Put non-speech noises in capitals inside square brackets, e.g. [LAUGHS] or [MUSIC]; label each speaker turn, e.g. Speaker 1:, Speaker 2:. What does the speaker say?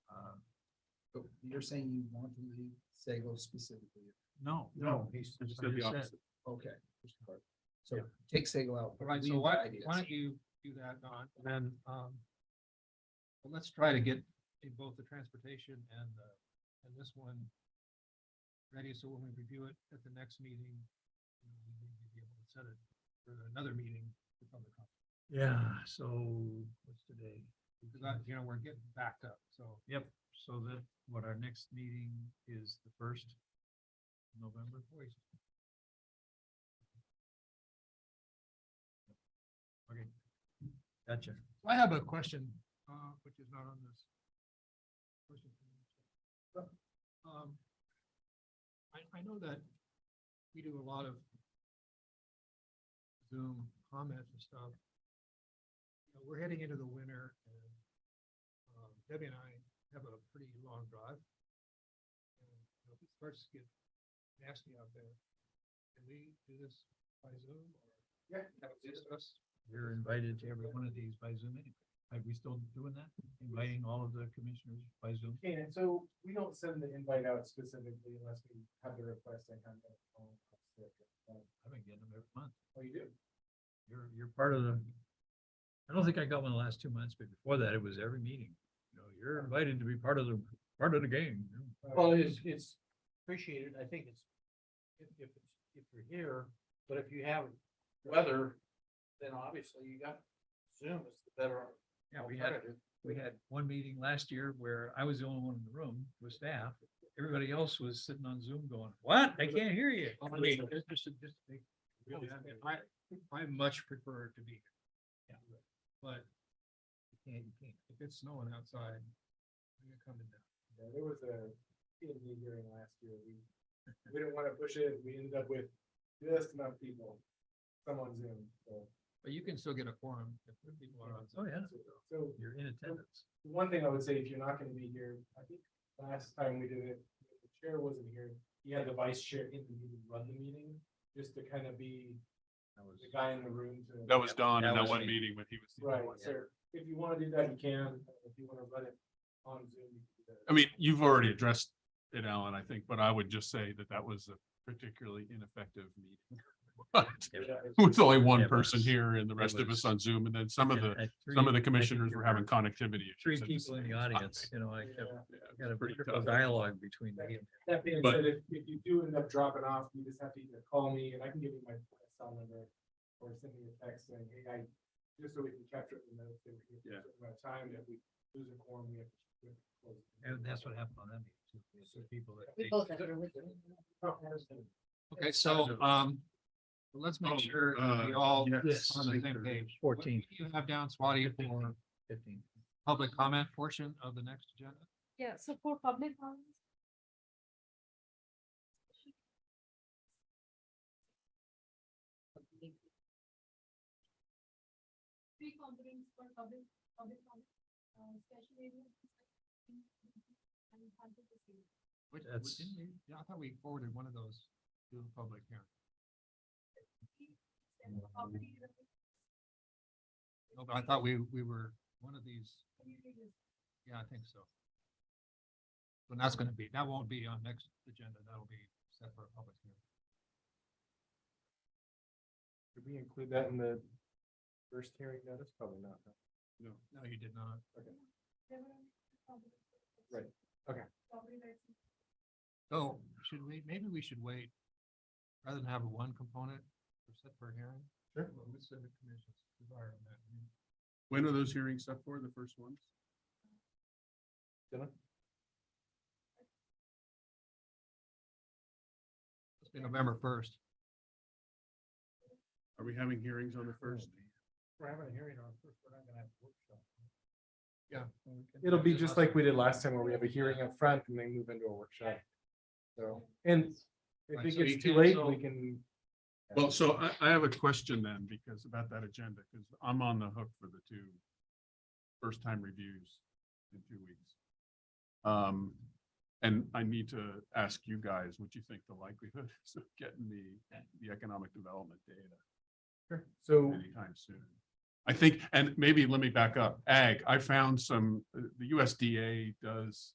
Speaker 1: Um, But you're saying you want to leave Sago specifically.
Speaker 2: No.
Speaker 3: No, he's.
Speaker 2: It's gonna be opposite.
Speaker 1: Okay. So
Speaker 3: Yeah.
Speaker 1: take Sago out.
Speaker 3: All right,
Speaker 1: leave
Speaker 3: so
Speaker 1: the
Speaker 3: why,
Speaker 1: ideas.
Speaker 3: why don't you do that, Don, and then, um, well, let's try to get in both the transportation and, uh, and this one ready, so when we review it at the next meeting, you know, we may be able to set it for another meeting for public comment.
Speaker 2: Yeah, so what's today?
Speaker 3: Because I, you know, we're getting backed up, so.
Speaker 2: Yep, so that, what, our next meeting is the first of November? Okay, gotcha.
Speaker 3: I have a question, uh, which is not on this. question. Um, I, I know that we do a lot of Zoom comments and stuff. You know, We're heading into the winter and um, Debbie and I have a pretty long drive. And you know, It starts to get nasty out there. Can we do this by Zoom or? Yeah. Just us?
Speaker 2: You're invited to every one of these by Zoom anyway. Are we still doing that? Inviting all of the commissioners by Zoom?
Speaker 4: Okay, and so we don't send the invite out specifically unless we have the request and kind of. um,
Speaker 2: I've been getting them every month.
Speaker 4: Oh, you do?
Speaker 2: You're, you're part of the, I don't think I got one the last two months, but before that, it was every meeting. You know, you're invited to be part of the, part of the game. you know.
Speaker 5: Well, it's, it's appreciated, I think it's, if, if, it's- if you're here, but if you have weather, then obviously you got Zoom is the better
Speaker 2: Yeah, we had,
Speaker 5: alternative.
Speaker 2: we had one meeting last year where I was the only one in the room with staff. Everybody else was sitting on Zoom going, what? I can't hear you.
Speaker 3: I mean, it's just a- just a- really,
Speaker 4: Oh,
Speaker 3: I mean, I, I much prefer to be here. But if it's snowing outside, I'm gonna come in now.
Speaker 4: Yeah, there was a PMD hearing last year. We, we didn't want to push it. We ended up with this amount of people, some on Zoom, so.
Speaker 3: But you can still get a quorum if the people are
Speaker 2: Oh,
Speaker 3: outside.
Speaker 2: yeah,
Speaker 4: So
Speaker 2: you're in attendance.
Speaker 4: one thing I would say, if you're not gonna be here, I think last time we did it, the chair wasn't here. You had the vice chair in the meeting, run the meeting, just to kind of be
Speaker 2: That was-
Speaker 4: the guy in the room to.
Speaker 6: That was Don in
Speaker 2: That
Speaker 6: that
Speaker 2: was
Speaker 6: one
Speaker 2: me.
Speaker 6: meeting when he was. the
Speaker 4: Right,
Speaker 6: only one.
Speaker 4: so if you wanna do that, you can, if you wanna run it on Zoom. you can do that.
Speaker 6: I mean, you've already addressed it, Alan, I think, but I would just say that that was a particularly ineffective meeting. [LAUGHS] But With only
Speaker 2: Yeah,
Speaker 6: one
Speaker 2: but
Speaker 6: person
Speaker 2: it's-
Speaker 6: here and the rest of
Speaker 2: was-
Speaker 6: us on Zoom, and then some of the,
Speaker 2: Yeah, I- three- I
Speaker 6: some of the
Speaker 2: think
Speaker 6: commissioners
Speaker 2: there
Speaker 6: were having connectivity issues.
Speaker 2: Three
Speaker 6: at the
Speaker 2: people in the
Speaker 6: same
Speaker 2: audience,
Speaker 6: time.
Speaker 2: you know, I kept,
Speaker 4: Yeah.
Speaker 6: Yeah, it
Speaker 2: got
Speaker 6: was
Speaker 2: a
Speaker 6: pretty
Speaker 2: critical
Speaker 6: tough.
Speaker 2: dialogue between me and
Speaker 4: That being said,
Speaker 6: But-
Speaker 4: if, if you do end up dropping off, you just have to either call me and I can give you my cell number or send me a text saying, hey, I, just so we can capture it in the notes. that we get
Speaker 6: Yeah.
Speaker 4: a certain amount of time, if we lose a quorum, we have to. we have to close.
Speaker 2: And that's what happened on that meeting too. We had some people that.
Speaker 7: We both agree with you.
Speaker 3: Okay, so, um, let's
Speaker 6: Oh,
Speaker 3: make sure
Speaker 6: uh,
Speaker 3: we all
Speaker 2: yes.
Speaker 3: on the same page. What- what
Speaker 2: 14.
Speaker 3: do You have down Swati for
Speaker 2: Fifteen.
Speaker 3: public comment portion of the next agenda.
Speaker 7: Yeah, so for public ones. Three components for public, public comment, uh, special area. And controversy.
Speaker 3: Which, which
Speaker 2: That's-
Speaker 3: didn't we- yeah, I thought we forwarded one of those to the public hearing.
Speaker 7: And property related
Speaker 3: No, but I thought we, we were, one of these,
Speaker 7: communities.
Speaker 3: yeah, I think so. But that's gonna be, that won't be on next agenda, that'll be set for a public hearing.
Speaker 4: Did we include that in the first hearing notice? Probably not. huh?
Speaker 3: No, you did not.
Speaker 7: There were public-
Speaker 4: Right, okay.
Speaker 7: Property rights.
Speaker 3: So should we, maybe we should wait, rather than have one component for set for hearing?
Speaker 4: Sure.
Speaker 3: What would the commission's desire on that? I mean,
Speaker 6: When are those hearings up for, the first ones?
Speaker 3: It's been November first.
Speaker 6: Are we having hearings on the first?
Speaker 3: We're having a hearing on first, we're not gonna have a workshop. Yeah. well, we can-
Speaker 4: It'll be just like we did last time where we have a hearing up front and then move into a workshop. So, and if
Speaker 3: Right,
Speaker 4: it
Speaker 3: so you
Speaker 4: gets too
Speaker 3: can-
Speaker 4: late,
Speaker 3: so-
Speaker 4: we can.
Speaker 6: Well, so I, I have a question then, because about that agenda, because I'm on the hook for the two first time reviews in two weeks. Um, and I need to ask you guys, what you think the likelihood [LAUGHS] is of getting the, the economic development data
Speaker 4: So
Speaker 6: anytime soon? I think, and maybe let me back up, ag, I found some, uh, the USDA does